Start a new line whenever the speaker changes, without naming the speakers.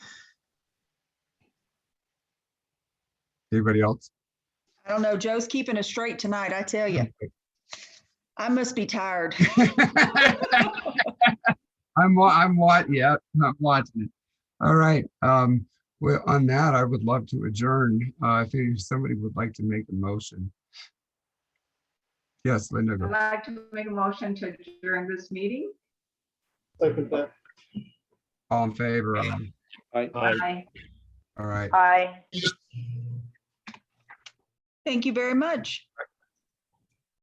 Anybody else?
I don't know. Joe's keeping us straight tonight, I tell you. I must be tired.
I'm, wa- I'm what, yeah, I'm watching it. All right, um, well, on that, I would love to adjourn, uh, if any- somebody would like to make a motion. Yes, Linda,
I'd
go.
like to make a motion to adjourn this meeting.
Second that.
all in favor, aye.
Aye.
all right.
Aye.
Thank you very much.